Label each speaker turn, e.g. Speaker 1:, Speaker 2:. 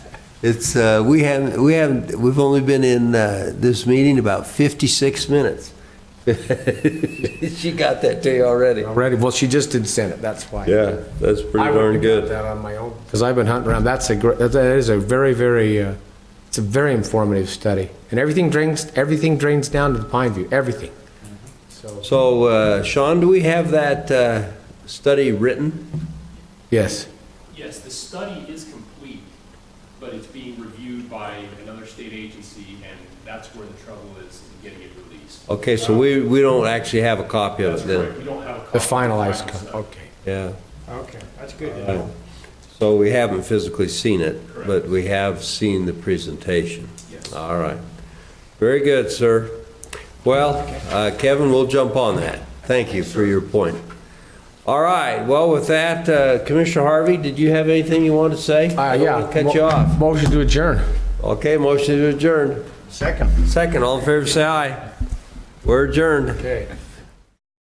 Speaker 1: It's, uh, we haven't, we haven't, we've only been in uh, this meeting about 56 minutes. She got that to you already.
Speaker 2: Already, well, she just did send it, that's why.
Speaker 3: Yeah, that's
Speaker 2: I
Speaker 3: pretty
Speaker 2: wouldn't
Speaker 3: darn
Speaker 2: have got
Speaker 3: good.
Speaker 2: that on my own, because I've been hunting around, that's a, gr- that is a very, very, uh, it's a very informative study. And everything drains, everything drains down to the Pine View, everything. So,
Speaker 1: So uh, Sean, do we have that uh, study written?
Speaker 2: yes,
Speaker 4: Yes, the study is complete, but it's being reviewed by another state agency, and that's where the trouble is in getting it released.
Speaker 1: Okay, so we, we don't actually have a copy of
Speaker 4: That's
Speaker 1: it then?
Speaker 4: correct, we don't have a copy.
Speaker 2: the
Speaker 4: of
Speaker 2: finalized,
Speaker 4: final
Speaker 2: con-
Speaker 4: study.
Speaker 2: okay.
Speaker 1: Yeah.
Speaker 2: Okay, that's good.
Speaker 1: So we haven't physically seen it, but
Speaker 4: Correct.
Speaker 1: we have seen the presentation.
Speaker 4: Yes.
Speaker 1: All right. Very good, sir. Well, uh, Kevin, we'll jump on that. Thank you for your point. All right, well, with that, uh, Commissioner Harvey, did you have anything you wanted to say?
Speaker 2: Uh,
Speaker 1: I don't
Speaker 2: yeah.
Speaker 1: wanna Cut you off.
Speaker 2: Motion to adjourn.
Speaker 1: Okay, motion to adjourn.
Speaker 5: Second.
Speaker 1: Second, all in favor, say aye. We're adjourned.
Speaker 2: Okay.